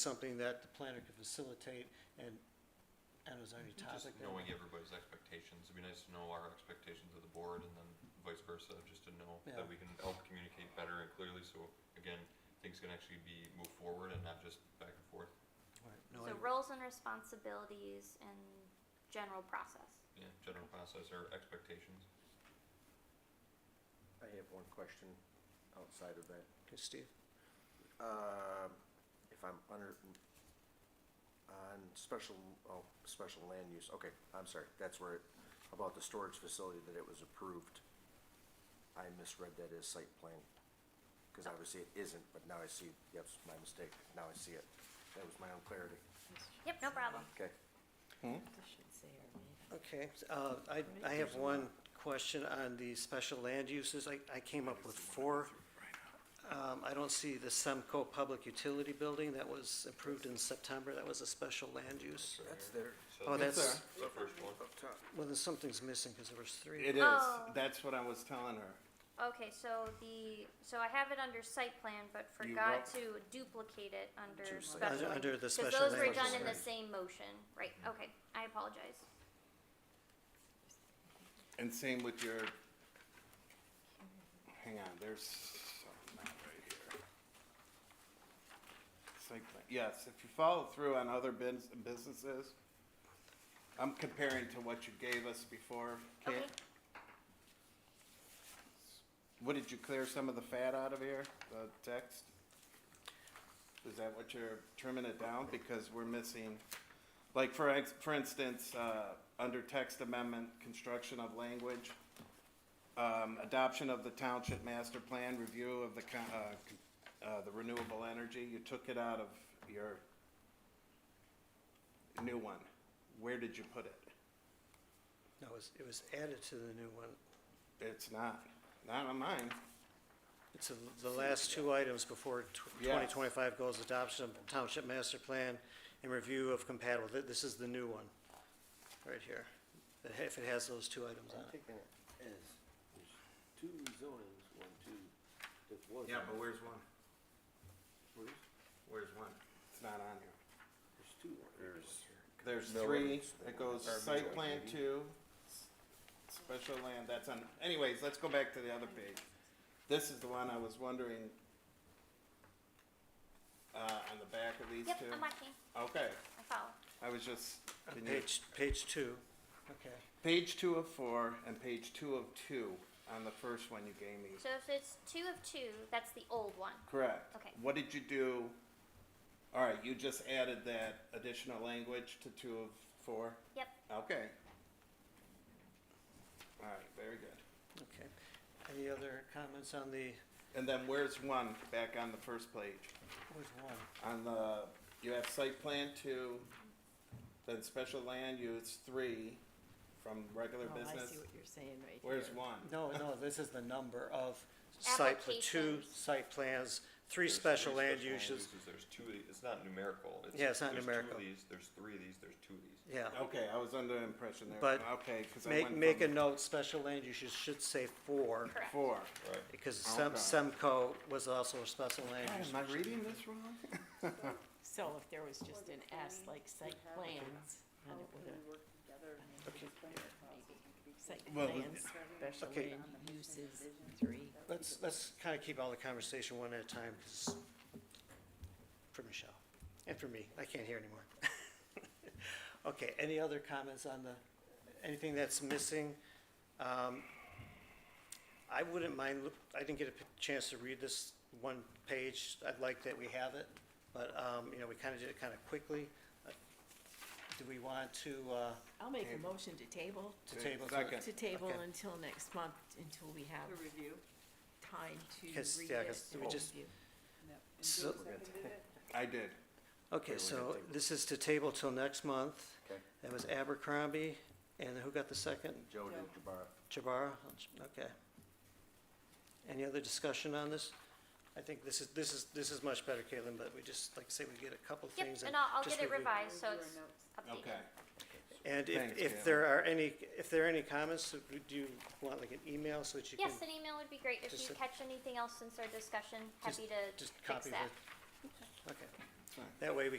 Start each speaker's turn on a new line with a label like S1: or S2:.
S1: something that the planner could facilitate and, and it was any
S2: Just
S1: topic. that-
S2: knowing everybody's expectations, it'd be nice to know our expectations of the board and then vice versa, just to know
S1: Yeah.
S2: that we can help communicate better and clearly, so again, things can actually be moved forward and not just back and forth.
S1: Right, no,
S3: So
S1: I-
S3: roles and responsibilities and general process.
S2: Yeah, general process or expectations.
S4: I have one question outside of that.
S1: okay, Steve,
S4: Uh, If I'm under, on special, oh, special land use, okay, I'm sorry, that's where, it about the storage facility that it was approved. I misread that as site plan, because obviously it isn't, but now I see, yep, it's my mistake, now I see it. That was my own clarity,
S3: Yep, no problem.
S4: okay.
S1: okay, uh, I, I have one question on the special land uses, I, I came up with four. Um, I don't see the Semco Public Utility Building that was approved in September, that was a special land use.
S4: That's there.
S2: So
S1: Oh,
S2: that's
S1: that's,
S5: Yes, sir.
S2: the first one.
S1: well, then something's missing, cause there was three.
S5: It is.
S3: Oh.
S5: That's what I was telling her.
S3: Okay, so the, so I have it under site plan, but
S5: You
S3: forgot
S5: wrote-
S3: to duplicate it under
S4: To site
S3: special.
S1: Under- under the
S3: Cause
S1: special Mm-hmm.
S3: those were
S1: land
S3: done
S1: use.
S3: in the same motion, right, okay, I apologize.
S5: And same with your. Hang on, there's something not right here. It's like, yes, if you follow through on other bins, businesses, I'm comparing to what you gave us before. Kate.
S3: Okay,
S5: What did you clear some of the fat out of here? The text? Is that what you're trimming it down? Because we're missing, like for ex, for instance, uh, under text amendment, construction of language, um, adoption of the township master plan, review of the con, uh, c- uh, the renewable energy, you took it out of your new one. Where did you put it?
S1: No, it was, it was added to the new one,
S5: It's not, not on mine.
S1: it's the- the last two items before tw-
S5: Yeah.
S1: 2025 goals, adoption of township master plan and review of compatible, Th- this is the new one, right here. It ha- If it has those two items on
S6: I'm
S1: it.
S6: taking it as, there's two zonings, one, two, that was.
S5: where's one?
S6: Where's,
S5: Where's one? It's not on here.
S6: there's two. on there.
S4: There's-
S5: There's
S4: No,
S5: three,
S4: it's-
S5: it goes
S4: or
S5: site
S4: maybe-
S5: plan two, s- special land, that's on, anyways, let's go back to the other page. This is the one I was wondering, uh, on the back of these
S3: yep,
S5: two?
S3: I'm watching,
S5: Okay,
S3: I follow.
S5: I was just,
S1: On
S5: can you-
S1: Page, page two. Okay.
S5: page two of four and page two of two on the first one you gave me.
S3: So if it's two of two, that's the old one.
S5: Correct.
S3: Okay.
S5: What did you do? All right, you just added that additional language to two of four?
S3: Yep,
S5: Okay. All right, very good.
S1: Okay. Any other comments on the,
S5: And then where's one back on the first page?
S1: which one?
S5: On the, you have site plan two, then special land use three from regular
S7: Oh, I
S5: business.
S7: see what you're saying right here.
S5: Where's one?
S1: No, no, this is the number of site, pla- two
S3: Applications.
S1: site plans, three
S2: There's
S1: special
S2: three
S1: land
S2: special
S1: uses.
S2: There's two of these, it's not numerical.
S1: Yeah, it's not numerical.
S2: There's two of these, there's three of these, there's two of these.
S1: Yeah.
S5: Okay, I was under the impression there.
S1: But
S5: Okay, because Oh, I
S1: Make,
S5: went
S1: make a
S5: from
S1: note, special land uses should say four.
S3: correct.
S5: four.
S2: Right.
S1: Because Sem-
S5: Okay.
S1: Semco was also a special land
S5: God,
S1: use.
S5: am I reading this wrong?
S7: So if there was just an S like site plans, then it would have,
S8: work together and make
S1: Okay.
S8: these planning process could be
S7: site
S5: Well, the-
S7: plans, special
S1: Okay.
S7: land uses, three.
S1: Let's, let's kind of keep all the conversation one at a time, because, for Michelle, and for me, I can't hear anymore. Okay, any other comments on the, anything that's missing? Um, I wouldn't mind, look- I didn't get a p- chance to read this one page, I'd like that we have it, but, um, you know, we kind of did it kind of quickly. Uh, Do we want to, uh,
S7: I'll make a motion to table,
S1: to table? to-
S5: Second.
S7: to table
S1: Okay.
S7: until next month, until we have
S8: a review.
S7: time to read
S1: Because,
S7: it.
S1: yeah, 'cause we
S7: and
S1: just-
S7: review.
S8: And
S1: So-
S8: Joe seconded it?
S5: I did.
S1: Okay, so this is to table till next month.
S4: Okay.
S1: That was Abercrombie, and who got the second?
S4: Joe did
S8: Joe.
S4: Jabbar.
S1: Jabara? Okay. Any other discussion on this? I think this is, this is, this is much better, Caitlin, but we just, like I say, we get a couple
S3: Yep,
S1: things.
S3: and I'll, I'll
S1: just
S3: get it
S1: review.
S8: I'll
S3: revised, so
S8: review
S3: it's
S8: our notes.
S3: updated.
S5: Okay.
S1: And if,
S5: Thanks,
S1: if
S5: Caitlin.
S1: there are any, if there are any comments, do you want like an email so that you can?
S3: Yes, an email would be great. If
S1: Just
S3: you
S1: a-
S3: catch anything else since our discussion,
S1: just-
S3: happy to
S1: just
S3: fix
S1: copy
S3: that.
S1: the- Okay,
S5: percent.
S1: That way we